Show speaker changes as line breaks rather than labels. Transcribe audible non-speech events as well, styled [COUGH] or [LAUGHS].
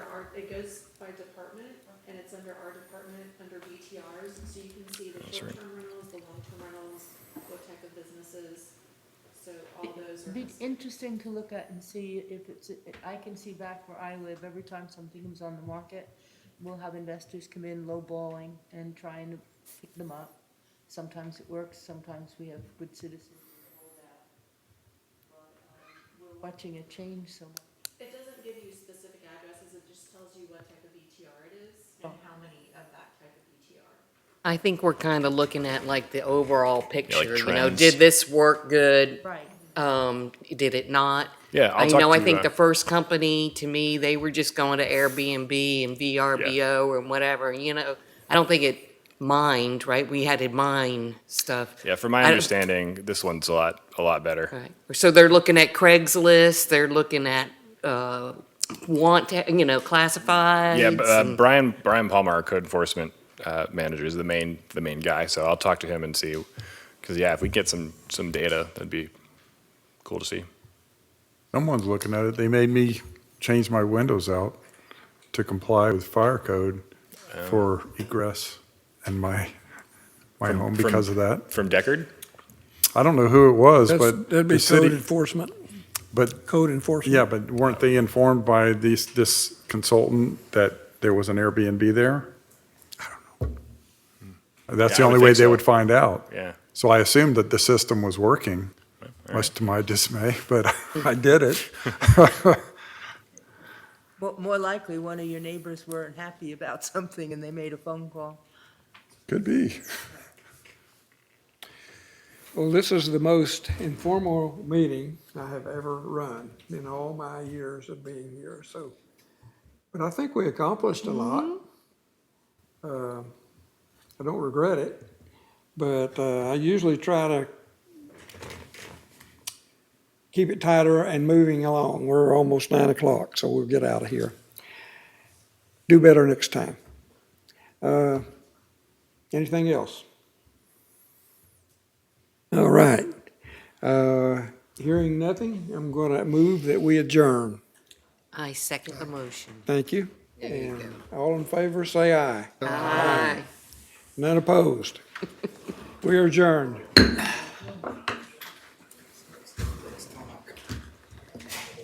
it goes by department, and it's under our department, under BTRs, so you can see the
That's right.
short-term rentals, the long-term rentals, what type of businesses, so all those are.
Be
listed.
interesting to look at and see if it's, I can see back where I live, every time something comes on the market, we'll have investors come in lowballing and trying to pick them up. Sometimes it works, sometimes we have good citizens who hold out. But, um, We're watching it change so much.
It doesn't give you specific addresses, it just tells you what type of BTR it is
Oh.
and how many of that type of BTR.
I think we're kind of looking at like the overall picture. you know,
trends.
did this work good?
Right.
Um, did it not?
Yeah, I'll
I
talk
know. I
to,
think
uh,
the first company to me, they were just going to Airbnb and VRBO and whatever. You know, I don't think it mined. Right? We had to mine stuff.
Yeah, from my
I don't-
understanding, this one's a lot a lot better.
Right. So they're looking at Craigslist. They're looking at uh, want. To, you know, classifieds.
Yeah, but, uh,
and-
Brian Brian Palmer, our code enforcement uh, manager, is the main the main guy. So I'll talk to him and see, because yeah, if we get some some data, that'd be cool to see.
Someone's looking at it. They made me change my windows out to comply with fire code for egress and my, my
From-
home
from-
because of that.
From Deckard,
I don't know who it was,
That's-
but.
That'd be
the city-
code enforcement,
But,
code enforcement.
yeah, but weren't they informed by these, this consultant that there was an Airbnb there? I don't know. That's
Hmm.
the
Yeah, I would
only way
think
they
so.
would find out.
yeah.
So I assumed that the system was working, much to my dismay, but [LAUGHS] I did it.
More, more likely, one of your neighbors weren't happy about [LAUGHS] something and they made a phone call.
Could be.
Well, this is the most informal meeting I have ever run in all my years of being here, so. But I think we accomplished a lot. Uh, I don't regret it, but uh, I usually try to keep it tighter and moving along. We're almost nine o'clock, so we'll get out of here. Do better next time. Uh, Anything else? All right. Uh, Hearing nothing, I'm going to move that we adjourn.
I second the motion.
Thank you. And all in favor, say aye.
Aye.
None opposed. We are adjourned.